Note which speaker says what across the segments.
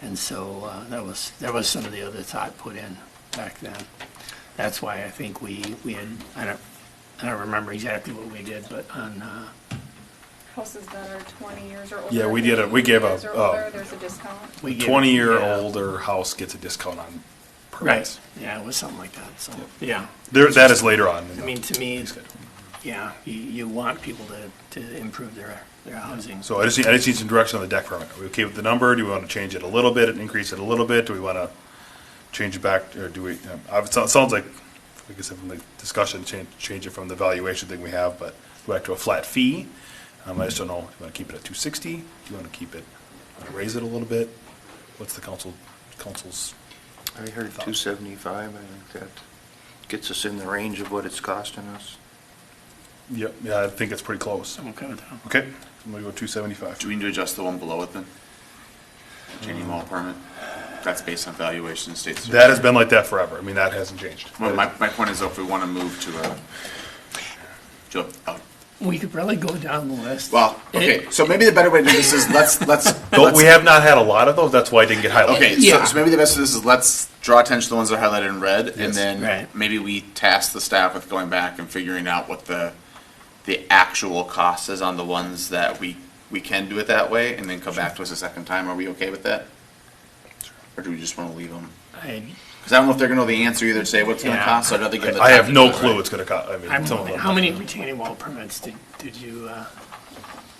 Speaker 1: And so uh, that was, that was some of the other thought put in back then. That's why I think we, we had, I don't, I don't remember exactly what we did, but on, uh,
Speaker 2: Houses that are twenty years or older.
Speaker 3: Yeah, we did a- we gave
Speaker 2: 15
Speaker 3: a,
Speaker 2: years or older,
Speaker 3: uh,
Speaker 2: There's a discount.
Speaker 1: we. gave- uh, yeah.
Speaker 3: Twenty-year-old or house gets a discount on
Speaker 1: Right,
Speaker 3: permits.
Speaker 1: yeah, it was something like that, so, yeah.
Speaker 3: There, that is later on.
Speaker 1: I mean, to me, yeah, you, you want people to, to improve their, their housing.
Speaker 3: So I just, need- I just need some direction on the deck permit. Are we okay with the number? Do we want to change it a little bit and increase it a little bit? Do we want to change it back, or do we, um, I- it sounds sounds like, like I said, from the discussion, change, change it from the valuation thing we have, but go back to a flat fee. Um, I just don't know, do you want to keep it at two sixty? Do you want to keep it, wanna raise it a little bit? What's the council, council's,
Speaker 4: I heard 275, I think that gets us in the range of what it's costing us.
Speaker 3: yep, yeah, I think it's pretty close.
Speaker 1: I'm okay with that.
Speaker 3: Okay, I'm gonna go two seventy-five.
Speaker 5: Do we need to adjust the one below it then? Jenny Mall permit? That's based on valuation and states.
Speaker 3: That has been like that forever. I mean, that hasn't changed.
Speaker 5: My, my my point is though, if we want to move to a, to a, a-
Speaker 1: We could probably go down the list.
Speaker 5: well, okay, so maybe the better way to do this is let's, let's.
Speaker 3: But we
Speaker 5: let's-
Speaker 3: have not had a lot of those, that's why it didn't get highlighted.
Speaker 5: Okay, so,
Speaker 1: Yeah.
Speaker 5: so maybe the best of this is let's draw attention to the ones that are highlighted in red,
Speaker 3: Yes.
Speaker 5: and then
Speaker 1: Right.
Speaker 5: maybe we task the staff with going back and figuring out what the the actual cost is on the ones that we we can do it that way, and then come back to us a second time. Are we okay with that? Or do we just want to leave them?
Speaker 1: I,
Speaker 5: Because I don't know if they're going to know the answer either. Say what's going
Speaker 1: Yeah.
Speaker 5: to cost. So I'd rather give. them the
Speaker 3: I
Speaker 5: time
Speaker 3: have
Speaker 5: to
Speaker 3: no
Speaker 5: do it, right?
Speaker 3: clue what's gonna cost. I mean,
Speaker 1: I'm,
Speaker 3: some of them.
Speaker 1: how many retaining wall permits did, did you, uh,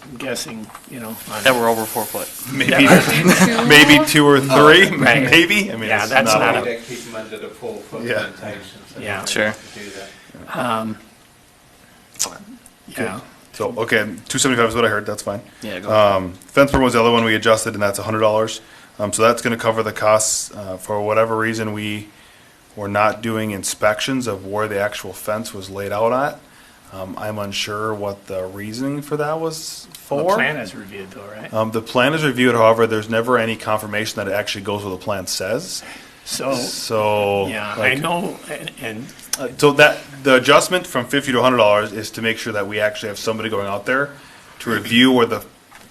Speaker 1: I'm guessing, you know? on-
Speaker 6: That were over four foot.
Speaker 3: Maybe, maybe two or three, maybe. I mean,
Speaker 1: Oh, Yeah,
Speaker 3: it's
Speaker 1: that's
Speaker 3: not.
Speaker 1: not
Speaker 3: a-
Speaker 1: a-
Speaker 7: That keep them under the full foot
Speaker 3: Yeah. Um,
Speaker 7: limitation, so
Speaker 1: Yeah.
Speaker 7: they
Speaker 6: Sure.
Speaker 7: have to do that.
Speaker 1: Yeah,
Speaker 3: So okay, two seventy five is what I heard. That's fine.
Speaker 6: Yeah, go.
Speaker 3: Um, fence permit was the other one we adjusted, and that's hundred dollars. Um, so that's gonna cover the costs uh, for whatever reason we were not doing inspections of where the actual fence was laid out at. Um, I'm unsure what the reasoning for that was
Speaker 1: the
Speaker 3: for.
Speaker 1: plan is reviewed though, right?
Speaker 3: Um, the plan is reviewed, however, there's never any confirmation that it actually goes where the plan says.
Speaker 1: So,
Speaker 3: So
Speaker 1: yeah, I
Speaker 3: like,
Speaker 1: know, and, and
Speaker 3: uh, So that the adjustment from fifty to hundred dollars is to make sure that we actually have somebody going out there to review where the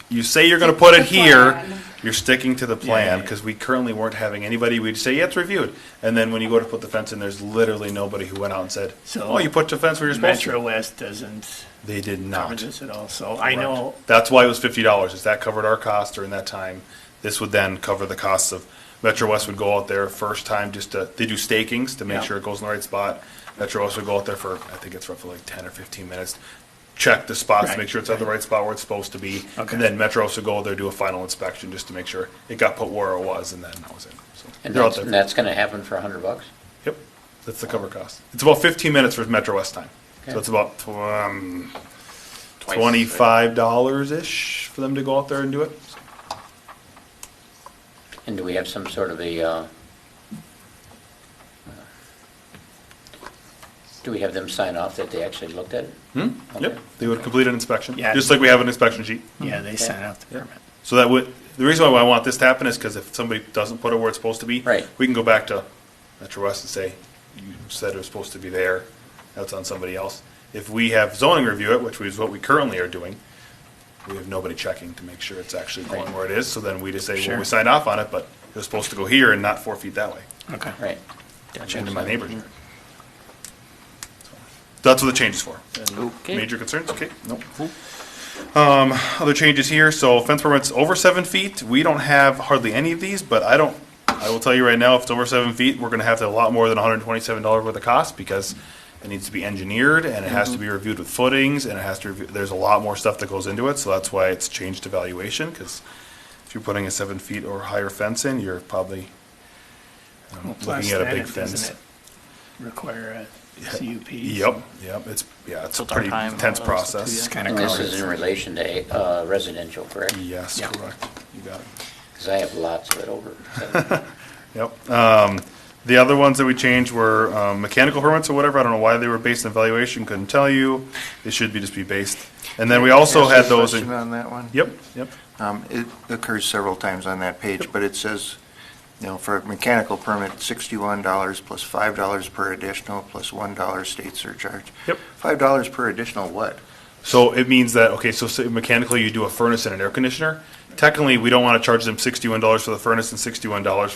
Speaker 3: you say you're going to put it
Speaker 2: The
Speaker 3: here.
Speaker 2: plan.
Speaker 3: You're sticking to the plan because we currently weren't having anybody. We'd say, yeah, it's reviewed. And then when you go to put the fence in, there's literally nobody who went out and said,
Speaker 1: So-
Speaker 3: oh, you put the fence where you're supposed
Speaker 1: Metro
Speaker 3: to.
Speaker 1: West doesn't
Speaker 3: They did
Speaker 1: cover
Speaker 3: not.
Speaker 1: this at all, so I
Speaker 3: Correct.
Speaker 1: know,
Speaker 3: That's why it was fifty dollars, is that covered our cost during that time. This would then cover the costs of, Metro West would go out there first time just to, they do stakings to
Speaker 1: Yeah.
Speaker 3: make sure it goes in the right spot. Metro West would go out there for, I think it's roughly like ten or fifteen minutes, check the spots,
Speaker 1: Right,
Speaker 3: make sure it's at the
Speaker 1: right.
Speaker 3: right spot where it's supposed to be.
Speaker 1: Okay.
Speaker 3: And then Metro West would go out there, do a final inspection just to make sure it got put where it was and then that was it. So
Speaker 8: And
Speaker 3: they're out
Speaker 8: that's,
Speaker 3: there.
Speaker 8: and that's gonna happen for a hundred bucks?
Speaker 3: Yep, that's the cover cost. It's about fifteen minutes for Metro West time. So
Speaker 8: Okay.
Speaker 3: it's about, um,
Speaker 5: Twice, right?
Speaker 3: twenty-five dollars-ish for them to go out there and do it.
Speaker 8: And do we have some sort of a, uh, do we have them sign off that they actually looked at it?
Speaker 3: Hmm.
Speaker 8: Okay.
Speaker 3: Yep, they would complete an inspection,
Speaker 1: Yeah.
Speaker 3: just like we have an inspection sheet.
Speaker 1: yeah, they sent out the permit.
Speaker 3: So that would, the reason why I want this to happen is because if somebody doesn't put it where it's supposed to be.
Speaker 8: Right.
Speaker 3: We can go back to Metro West and say, you said it was supposed to be there, that's on somebody else. If we have zoning review it, which is what we currently are doing, we have nobody checking to make sure it's actually going
Speaker 8: Right.
Speaker 3: where it is, so then we just say, well,
Speaker 1: Sure.
Speaker 3: we signed off on it, but it was supposed to go here and not four feet that way.
Speaker 1: Okay.
Speaker 8: Right.
Speaker 3: into my neighbor's yard. So That's what the change is for. And
Speaker 6: Okay.
Speaker 3: Major concerns, okay, nope. Um, other changes here, so fence permits over seven feet, we don't have hardly any of these, but I don't, I will tell you right now, if it's over seven feet, we're gonna have to have a lot more than hundred and twenty-seven dollars worth of cost, because it needs to be engineered, and it has to
Speaker 6: Mm-hmm.
Speaker 3: be reviewed with footings, and it has to, review- there's a lot more stuff that goes into it, so that's why it's changed to valuation, cause if you're putting a seven feet or higher fence in, you're probably um,
Speaker 1: Plus
Speaker 3: looking at a
Speaker 1: then
Speaker 3: big
Speaker 1: it-
Speaker 3: fence.
Speaker 1: doesn't it Require a CUP.
Speaker 3: Yep, yep, it's, yeah, it's a
Speaker 6: Tilt our
Speaker 3: pretty
Speaker 6: time,
Speaker 3: intense
Speaker 6: all those, the two,
Speaker 3: process.
Speaker 1: It's kind of
Speaker 8: And this
Speaker 1: covered.
Speaker 8: is in relation to uh, residential, correct?
Speaker 3: Yes,
Speaker 1: Yeah.
Speaker 3: correct, you got it.
Speaker 8: Because I have lots of it over.
Speaker 3: Yep, um, the other ones that we changed were, um, mechanical permits or whatever, I don't know why they were based on evaluation, couldn't tell you. They should be, just be based, and then we also
Speaker 4: Ask a
Speaker 3: had those, in-
Speaker 4: Question on that one?
Speaker 3: yep, yep,
Speaker 4: Um, It occurs several times on that page, but it says, you know, for a mechanical permit, $61 plus $5 per additional plus $1 state surcharge.
Speaker 3: Yep.
Speaker 4: $5 per additional what?
Speaker 3: so it means that, okay, so say mechanically you do a furnace and an air conditioner, technically, we don't want to charge them sixty-one dollars for the furnace and sixty-one dollars